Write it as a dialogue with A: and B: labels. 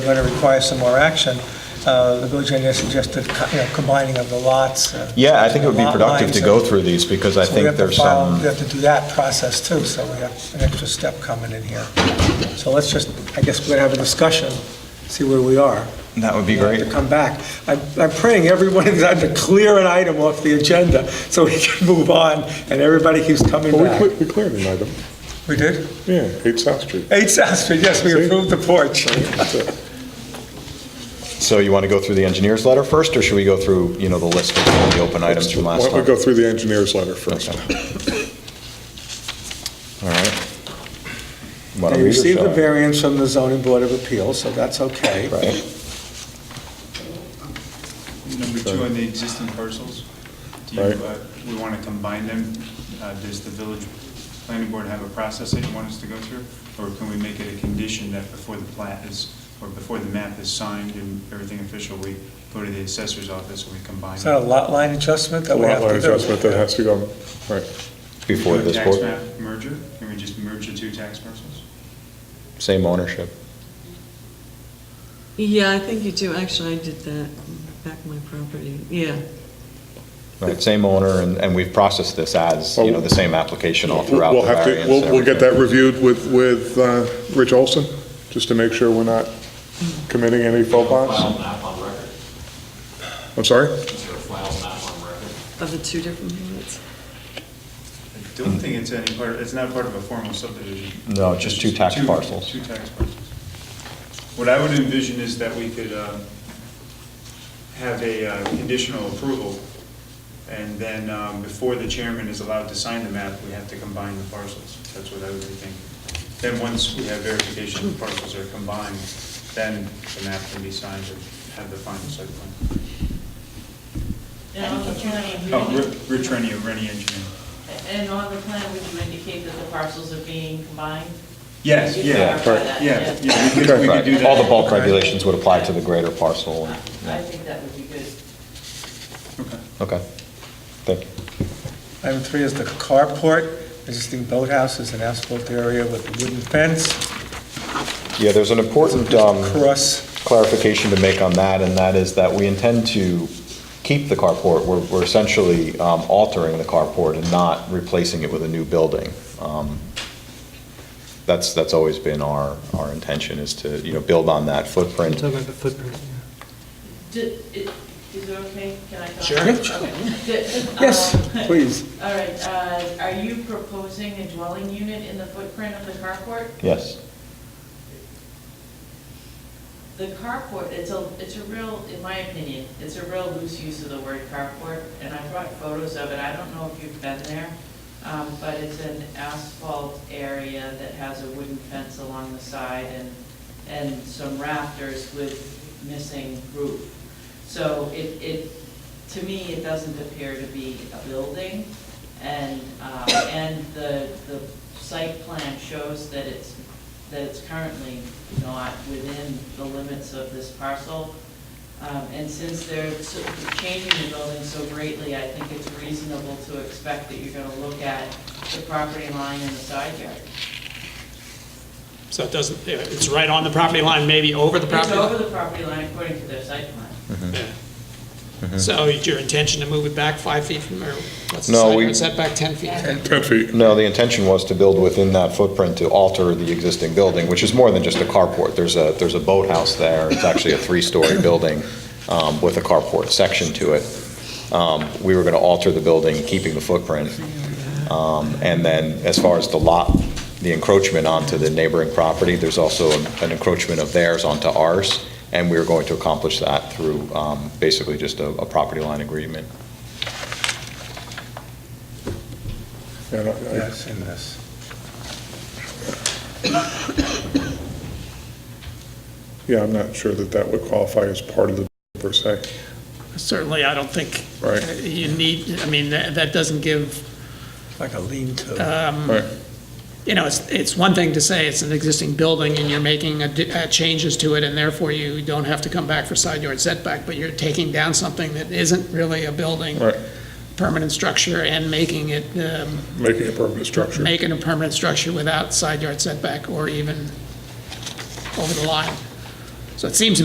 A: going to require some more action. Uh, The village engineer suggested, you know, combining of the lots. uh,
B: Yeah, I think it would be
A: lot
B: productive
A: lines,
B: to
A: so-
B: go through these, because I
A: so we have
B: think
A: to
B: there's
A: file- We
B: some,
A: have to do that process too, so we have an extra step coming in here. So let's just, I guess we're going to have a discussion, see where we are.
B: that would be
A: We have
B: great.
A: To come back. I'm I'm praying everyone is had to clear an item off the agenda so we can move on, and everybody keeps coming
C: Well, we
A: back.
C: cleared, we cleared an item,
A: We did?
C: yeah, 8 South Street.
A: 8 South Street, yes, we
C: See?
A: approved the porch.
C: That's it.
B: So you want to go through the engineer's letter first, or should we go through, you know, the list of all the open items from
C: Why
B: last
C: don't we
B: time?
C: go through the engineer's letter first?
B: All right. Why don't
A: They
B: we just,
A: received the
B: uh,
A: variance from the zoning board of appeals, so that's okay.
B: Right,
D: Number two, on the existing parcels, do you,
C: Right.
D: uh, we want to combine them? Uh, Does the village planning board have a process that you want us to go through? Or can we make it a condition that before the plat is, or before the map is signed and everything official, we go to the assessor's office and we combine?
A: Is that a
D: them?
A: lot line adjustment that we have
C: Lot
A: to do?
C: line adjustment that has to go, right,
B: before
D: Do a
B: this
D: Tax
B: board,
D: map merger? Can we just merge the two tax parcels?
B: same ownership.
E: Yeah, I think you do. Actually, I did that back on my property. Yeah,
B: Right, same owner, and, and we've processed this as, you know, the same application all throughout the
C: Oh, We'll have to,
B: variance.
C: we'll, we'll get that
B: everything.
C: reviewed with, with uh, Rich Olson, just to make sure we're not committing any faux pas.
F: File map on record.
C: I'm sorry?
F: Is there a file map on record?
E: of the two different lots.
D: I don't think it's any part, it's not part of a formal subdivision.
B: No, just two tax parcels.
D: Two tax parcels. What I would envision is that we could uh, have a uh, conditional approval, and then um, before the chairman is allowed to sign the map, we have to combine the parcels. That's what I would be thinking. Then, once we have verification the parcels are combined, then the map can be signed and have the final site plan.
G: And on the plan,
D: Oh,
G: would you-
D: Ri- Rich Rennie, Rennie Engineering.
G: and on the plan, would you indicate that the parcels are being combined?
D: Yes,
G: You
D: yeah,
G: clarify that,
D: yeah, yeah, we could we could do
B: Right,
D: that.
B: all the bulk regulations would apply to the greater parcel, and-
G: I I think that would be good.
D: Okay.
B: okay, thank you.
A: Item three is the carport, existing boathouse is an asphalt area with a wooden fence,
B: Yeah, there's an important, um.
A: cross,
B: clarification to make on that, and that is that we intend to keep the carport. We're we're essentially um, altering the carport and not replacing it with a new building. Um, That's, that's always been our, our intention, is to, you know, build on that footprint.
G: Di- it- Is it okay? Can I talk?
A: Sure.
G: Okay. Di-
A: Yes,
G: um,
A: please.
G: All right, uh, are you proposing a dwelling unit in the footprint of the carport?
B: Yes,
G: The carport, it's a, it's a real, in my opinion, it's a real loose use of the word carport, and I brought photos of it, I don't know if you've been there, um, but it's an asphalt area that has a wooden fence along the side and, and some rafters with missing roof. So it, it, to me, it doesn't appear to be a building, and, um, and the, the site plan shows that it's that it's currently not within the limits of this parcel. Um, And since they're so- changing the building so greatly, I think it's reasonable to expect that you're gonna look at the property line and the side yard.
H: So it doesn't, yeah, it's right on the property line, maybe over the
G: It's
H: property
G: over
H: line.
G: the property line according to their site plan.
H: Yeah. So is your intention to move it back five feet from, or what's the
B: No,
H: side
B: we-
H: yard setback, 10 feet?
C: 10 feet.
B: no, the intention was to build within that footprint to alter the existing building, which is more than just a carport. There's a, there's a boathouse there, it's actually a three-story building um, with a carport section to it. Um, We were going to alter the building, keeping the footprint. Um, And then, as far as the lot, the encroachment onto the neighboring property, there's also an encroachment of theirs onto ours, and we were going to accomplish that through um, basically just a a property line agreement.
C: Yeah, no, I-
A: yes, in this.
C: Yeah, I'm not sure that that would qualify as part of the per se.
H: Certainly, I don't think
C: Right.
H: uh, you need, I mean, that that doesn't give,
A: like a lean-to.
C: Right,
H: you know, it's, it's one thing to say it's an existing building and you're making a di- uh, changes to it, and therefore you don't have to come back for side yard setback, but you're taking down something that isn't really a building,
C: right,
H: permanent structure, and making it, um,
C: making a permanent structure.
H: making a permanent structure without side yard setback or even over the line. So it seems